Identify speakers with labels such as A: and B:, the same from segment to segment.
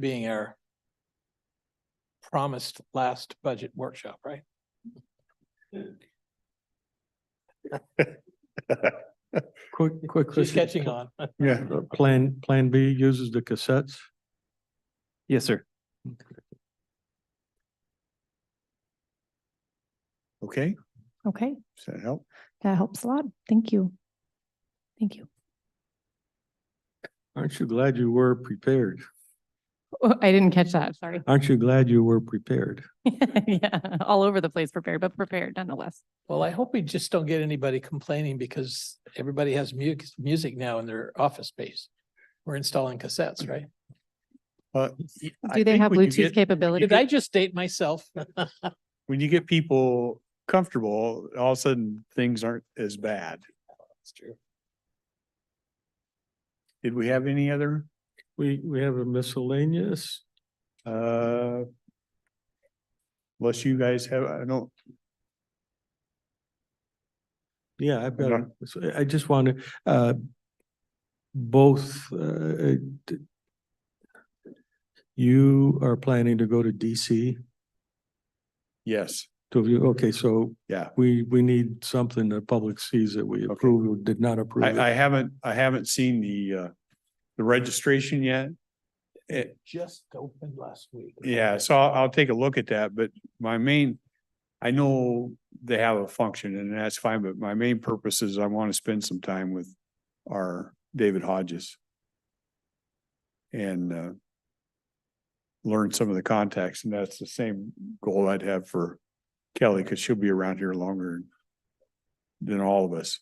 A: being our promised last budget workshop, right?
B: Quick, quick.
A: Just
B: question.
A: catching on.
B: Yeah, Uh, Plan, Plan B uses the cassettes.
C: Yes, sir.
B: Okay,
D: Okay,
B: does that help?
D: that helps a lot. Thank you. Thank you.
B: Aren't you glad you were prepared?
D: Oh, I didn't catch that, sorry.
B: Aren't you glad you were prepared?
D: Yeah, all over the place prepared, but prepared nonetheless.
A: Well, I hope we just don't get anybody complaining because everybody has mu- music now in their office space. We're installing cassettes, right?
B: Uh, I
D: Do they
B: think
D: have
B: when you
D: Bluetooth
B: get-
D: capability?
A: Did I just date myself?
B: When you get people comfortable, all of a sudden, things aren't as bad.
A: That's true.
B: Did we have any other?
E: We, we have a miscellaneous.
B: Uh, Unless you guys have, I don't,
E: Yeah, I've got,
B: Okay.
E: a- so I just want to, uh, both, uh, d- you are planning to go to DC,
B: yes,
E: two of you, okay, so
B: yeah.
E: we, we need something the public sees that we approve or did not approve. it.
B: I, I haven't, I haven't seen the, uh, the registration yet. Eh, It,
A: Just opened last week.
B: Yeah, so I'll, I'll take a look at that, but my main, I know they have a function and that's fine, but my main purpose is I want to spend some time with our David Hodges. And, uh, learn some of the contacts and that's the same goal I'd have for Kelly, because she'll be around here longer than all of us.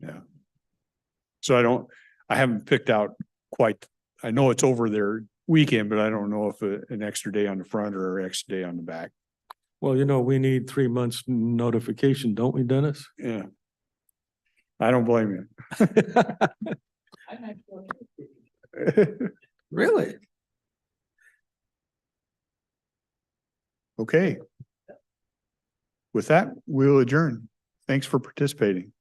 B: Yeah. So I don't, I haven't picked out quite I know it's over their weekend, but I don't know if a- an extra day on the front or an extra day on the back.
E: Well, you know, we need three months notification, don't we, Dennis?
B: Yeah. I don't blame you.
E: Really?
B: Okay. With that, we'll adjourn. Thanks for participating.